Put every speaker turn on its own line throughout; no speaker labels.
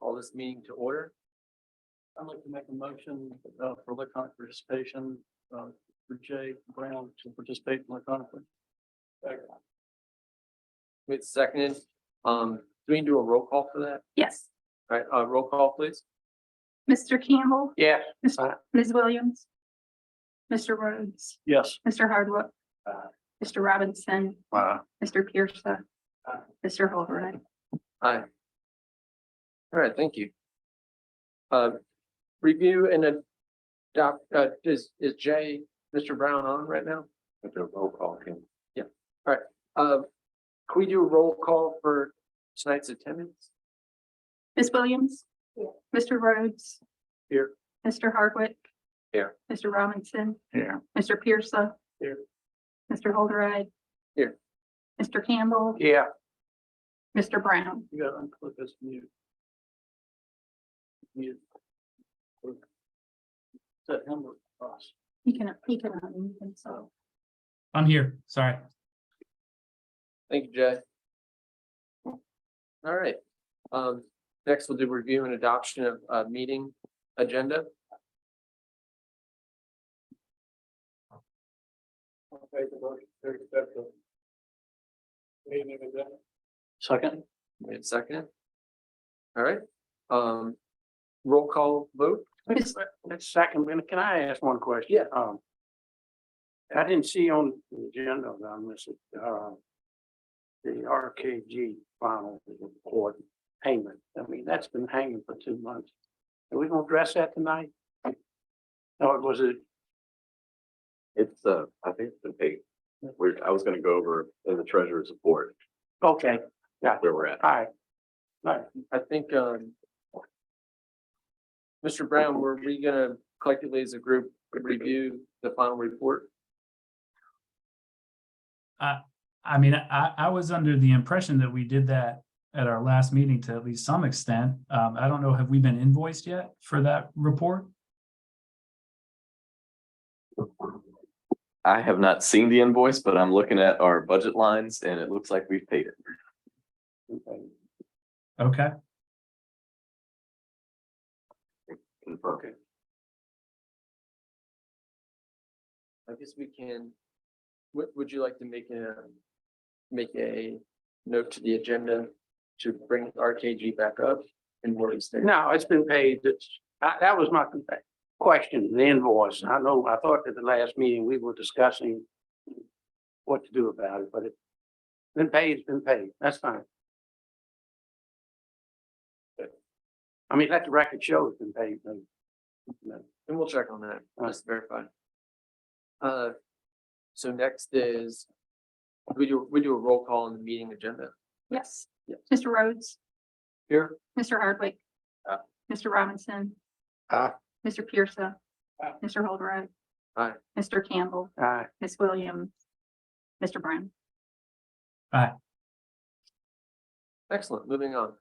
call this meeting to order. I'd like to make a motion uh, for electronic participation uh, for Jay Brown to participate electronically. Wait, seconded. Um, do we do a roll call for that?
Yes,
All right, uh, roll call, please.
Mr. Campbell,
Yeah.
Ms. Williams. Mr. Rhodes,
Yes.
Mr. Hardwick.
Aye.
Mr. Robinson,
Wow.
Mr. Pierce.
Aye.
Mr. Holbrook.
Aye. All right, thank you. Uh, review and adopt, uh, is, is Jay, Mr. Brown on right now?
That's a roll call, Kim.
Uh, can we do a roll call for tonight's attendance?
Ms. Williams. Mr. Rhodes,
Here.
Mr. Hardwick.
Here.
Mr. Robinson,
Here.
Mr. Pierce.
Here.
Mr. Holbrook.
Here.
Mr. Campbell,
Yeah.
Mr. Brown,
You gotta unclick this mute. Mute. Is that him or us?
he can, he can, unmute himself.
I'm here, sorry.
Thank you, Jay. All right, um, next we'll do review and adoption of, uh, meeting agenda. Second. Wait a second. All right, um, roll call vote?
Miss-
Second, and can I ask one question?
Yeah.
Um, I didn't see on the agenda, but I missed it, uh, the RKG final report payment. I mean, that's been hanging for two months. Are we gonna address that tonight? Or was it?
It's, uh, I think it's been paid. We're, I was gonna go over in the treasurer's report
Okay,
where we're at.
all right.
I think, um. Mr. Brown, were we gonna collectively as a group review the final report?
I mean, I, I was under the impression that we did that at our last meeting to at least some extent. Um, I don't know, have we been invoiced yet for that report?
I have not seen the invoice, but I'm looking at our budget lines and it looks like we've paid it.
Okay.
Okay,
Confirmed.
I guess we can. Would, would you like to make a, make a note to the agenda to bring RKG back up and where we stand?
No, it's been paid. It's, I- that was my question, the invoice. I know, I thought at the last meeting, we were discussing what to do about it, but it's been paid, it's been paid. That's fine. I mean, let the record show it's been paid. then.
And we'll check on that,
Alright.
just to verify. Uh, so next is, we do, we do a roll call on the meeting agenda
Yes.
Yeah.
Mr. Rhodes,
here.
Mr. Hardwick.
Aye.
Mr. Robinson.
Aye.
Mr. Pierce.
Aye.
Mr. Holdred.
Aye.
Mr. Campbell,
Aye.
Ms. Williams, Mr. Brown.
Excellent, moving on.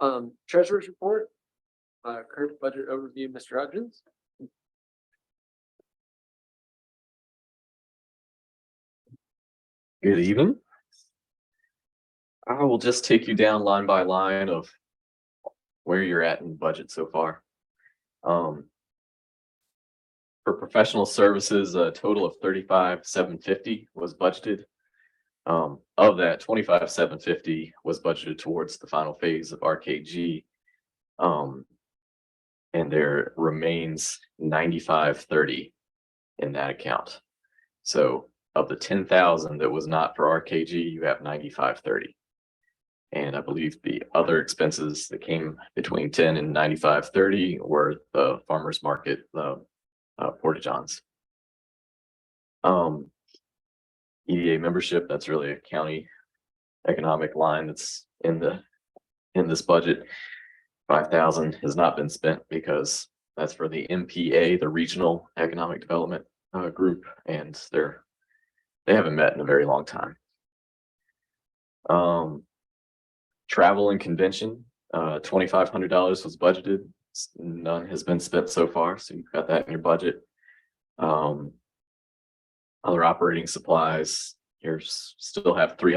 Um, treasurer's report, uh, current budget overview, Mr. Hodgins.
Good evening. I will just take you down line by line of where you're at in budget so far. Um. For professional services, a total of thirty-five, seven fifty was budgeted. Um, of that, twenty-five, seven fifty was budgeted towards the final phase of RKG. Um. And there remains ninety-five, thirty in that account. So of the ten thousand that was not for RKG, you have ninety-five thirty. And I believe the other expenses that came between ten and ninety-five thirty were the farmer's market, the uh, Porta Johns. Um, EDA membership, that's really a county economic line that's in the, in this budget. Five thousand has not been spent because that's for the MPA, the Regional Economic Development uh, Group, and their they haven't met in a very long time. Um, travel and convention, uh, twenty-five hundred dollars was budgeted. S- None has been spent so far, so you've got that in your budget. Um, other operating supplies, you're s- still have three